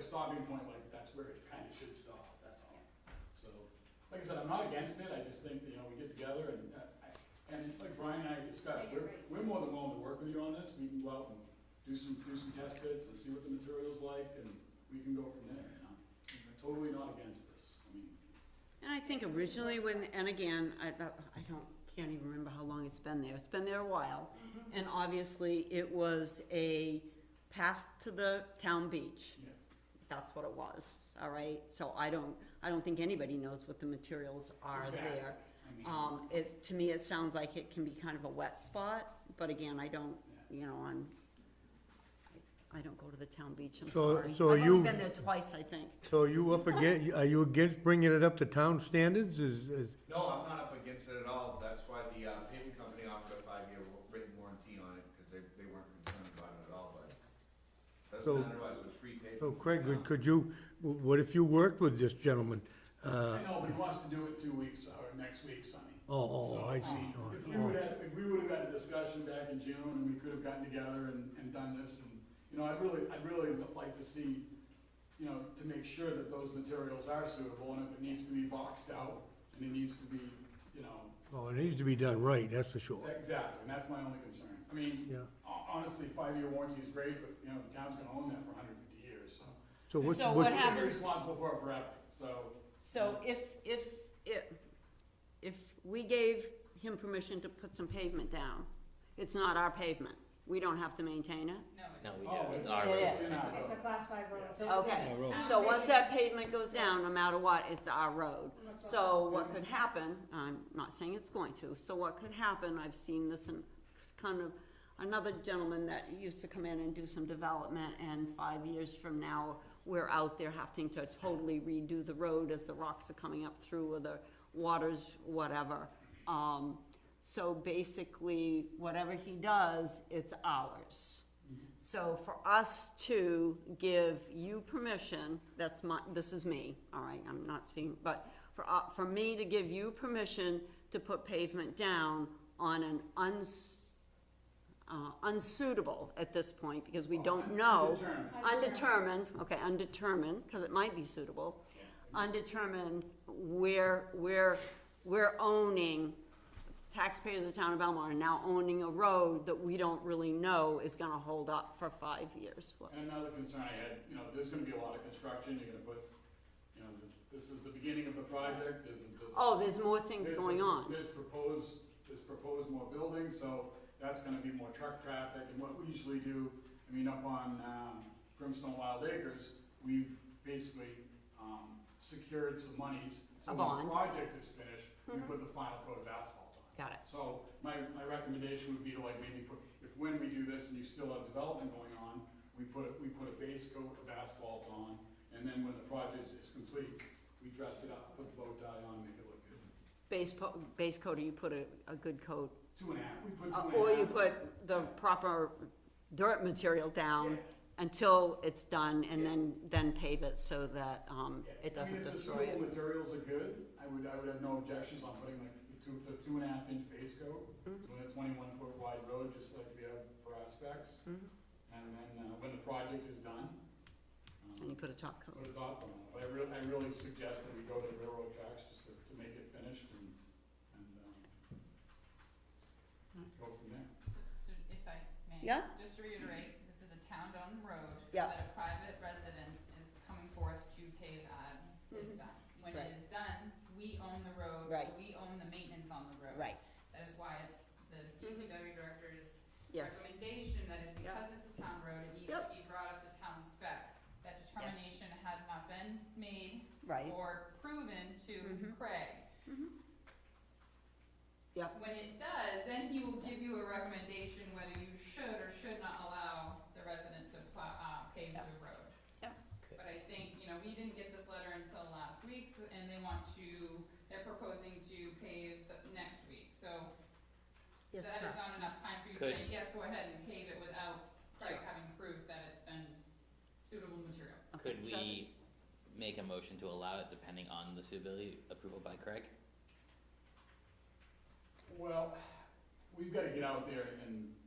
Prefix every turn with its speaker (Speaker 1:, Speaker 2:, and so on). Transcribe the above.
Speaker 1: stopping point, like, that's where it kinda should stop, that's all. So, like I said, I'm not against it, I just think, that, you know, we get together and, uh, I- and like Brian and I discussed,
Speaker 2: Yeah, you're
Speaker 1: we're,
Speaker 2: right.
Speaker 1: we're more than willing to work with you on this, we can go out and do some, do some test bits and see what the material's like, and we can go from there, you know? Totally not against this, I mean,
Speaker 3: And I think originally when, and again, I, I don't, can't even remember how long it's been there, it's been there a while.
Speaker 1: Mm-hmm.
Speaker 3: And obviously, it was a path to the town beach.
Speaker 1: yeah.
Speaker 3: That's what it was, all right? So I don't, I don't think anybody knows what the materials are
Speaker 1: Exactly.
Speaker 3: there.
Speaker 1: I mean,
Speaker 3: Um, it's, to me, it sounds like it can be kind of a wet spot, but again, I don't, you know, I'm, I, I don't go to the town beach, I'm
Speaker 4: So-
Speaker 3: sorry.
Speaker 4: so
Speaker 3: I've
Speaker 4: you-
Speaker 3: only been there twice, I think.
Speaker 4: So are you up again, are you against bringing it up to town standards, is, is,
Speaker 5: No, I'm not up against it at all. That's why the uh, paving company offered a five-year wa- written warranty on it, because they, they weren't concerned about it at all, but
Speaker 4: So-
Speaker 5: doesn't matter, otherwise it was free paving.
Speaker 4: so Craig,
Speaker 5: Yeah.
Speaker 4: would- could you, what if you worked with this gentleman? Uh,
Speaker 1: I know, but he wants to do it two weeks, or next week, Sunny.
Speaker 4: oh, oh,
Speaker 1: So,
Speaker 4: I
Speaker 1: mean,
Speaker 4: see,
Speaker 1: If we
Speaker 4: oh,
Speaker 1: would have, if we would have had a discussion back in June and we could have gotten together and, and done this and, you know, I'd really, I'd really like to see, you know, to make sure that those materials are suitable and if it needs to be boxed out and it needs to be, you know,
Speaker 4: oh, oh, it needs to be done right, that's for sure,
Speaker 1: exactly, and that's my only concern. I mean,
Speaker 4: yeah.
Speaker 1: ho- honestly, five-year warranty is great, but, you know, the town's gonna own that for hundred and fifty years, so.
Speaker 4: So what's,
Speaker 3: So
Speaker 4: what,
Speaker 3: what hap-
Speaker 1: We're
Speaker 3: happens-
Speaker 1: responsible for it forever, so.
Speaker 3: So if, if, if, if we gave him permission to put some pavement down, it's not our pavement, we don't have to maintain it?
Speaker 6: No, we
Speaker 1: Oh,
Speaker 6: don't.
Speaker 1: it's,
Speaker 6: It's our road.
Speaker 1: it's in our
Speaker 2: It's a
Speaker 1: road.
Speaker 2: class five road.
Speaker 1: Yeah.
Speaker 2: so it's
Speaker 3: Okay,
Speaker 2: not- it's
Speaker 3: so
Speaker 7: Um,
Speaker 2: not
Speaker 3: once
Speaker 2: big.
Speaker 3: that pavement goes down, no matter what, it's our road. So what could happen, I'm not saying it's going to, so what could happen, I've seen this in, it's kind of, another gentleman that used to come in and do some development, and five years from now, we're out there having to totally redo the road as the rocks are coming up through, or the waters, whatever. Um, so basically, whatever he does, it's ours. So for us to give you permission, that's my, this is me, all right, I'm not speaking, but for, uh, for me to give you permission to put pavement down on an uns, uh, unsuitable at this point, because we don't know.
Speaker 1: Undetermined.
Speaker 3: Undetermined, okay, undetermined, because it might be suitable. Undetermined where, where, we're owning taxpayers of the town of Belmar are now owning a road that we don't really know is gonna hold up for five years. What-
Speaker 1: And another concern I had, you know, there's gonna be a lot of construction, you're gonna put, you know, this this is the beginning of the project, there's, there's.
Speaker 3: Oh, there's more things
Speaker 1: there's-
Speaker 3: going on.
Speaker 1: There's proposed, there's proposed more buildings, so that's gonna be more truck traffic, and what we usually do, I mean, up on, um, Grimstone Wild Acres, we've basically, um, secured some monies.
Speaker 3: A
Speaker 1: So when
Speaker 3: bond. Mm-hmm.
Speaker 1: the project is finished, we put the final coat of asphalt on.
Speaker 3: Got it.
Speaker 1: So my, my recommendation would be to like maybe put, if when we do this and you still have development going on, we put, a- we put a base coat of asphalt on, and then when the project is complete, we dress it up, put the bow tie on, make it look good.
Speaker 3: Base po- base coat, or you put a, a good coat,
Speaker 1: Two and a half, we put
Speaker 3: Uh,
Speaker 1: two and a half.
Speaker 3: or you put the proper dirt material down until it's done, and then, then pave it so that, um,
Speaker 1: Yeah. I mean,
Speaker 3: it doesn't destroy
Speaker 1: If the
Speaker 3: it.
Speaker 1: suitable materials are good, I would, I would have no objections on putting like the two, the two and a half inch base coat,
Speaker 3: Mhm.
Speaker 1: doing a twenty-one foot wide road, just like we have for aspects.
Speaker 3: Mhm.
Speaker 1: And then, uh, when the project is done, um,
Speaker 3: And you put a top coat.
Speaker 1: Put a top on it, but I really, I really suggest that we go to the railroad tracks just to, to make it finished and, and, um, go from there.
Speaker 7: So if I may.
Speaker 3: Yeah.
Speaker 7: Just to reiterate, this is a town-owned road.
Speaker 3: Yeah.
Speaker 7: That a private resident is coming forth to pave at is done. When it
Speaker 3: Mm-hmm. Right.
Speaker 7: is done, we own the road, so
Speaker 3: Right.
Speaker 7: we own the maintenance on the road.
Speaker 3: Right, Mm-hmm.
Speaker 7: That is why it's the DPW director's
Speaker 3: yes,
Speaker 7: recommendation that is
Speaker 3: Yeah.
Speaker 7: because it's a town road, it needs to
Speaker 3: Yep.
Speaker 7: be brought up to town spec. That determination has not been made
Speaker 3: right.
Speaker 7: or proven to
Speaker 3: Mhm.
Speaker 7: Craig.
Speaker 3: Yeah.
Speaker 7: When it does, then he will give you a recommendation whether you should or should not allow the resident to plow, uh, pave
Speaker 3: Yeah.
Speaker 7: the road.
Speaker 3: Yeah.
Speaker 6: Okay.
Speaker 7: But I think, you know, we didn't get this letter until last week, so- and they want to, they're proposing to pave s- next week, so
Speaker 3: Yes,
Speaker 7: that is
Speaker 3: correct.
Speaker 7: not enough time for you to
Speaker 6: Could-
Speaker 7: say, yes, go ahead and pave it without Craig
Speaker 3: Sure.
Speaker 7: having proof that it's been suitable material.
Speaker 3: Okay,
Speaker 6: Could
Speaker 3: Travis?
Speaker 6: we make a motion to allow it depending on the suitability approval by Craig?
Speaker 1: Well, we've gotta get out there and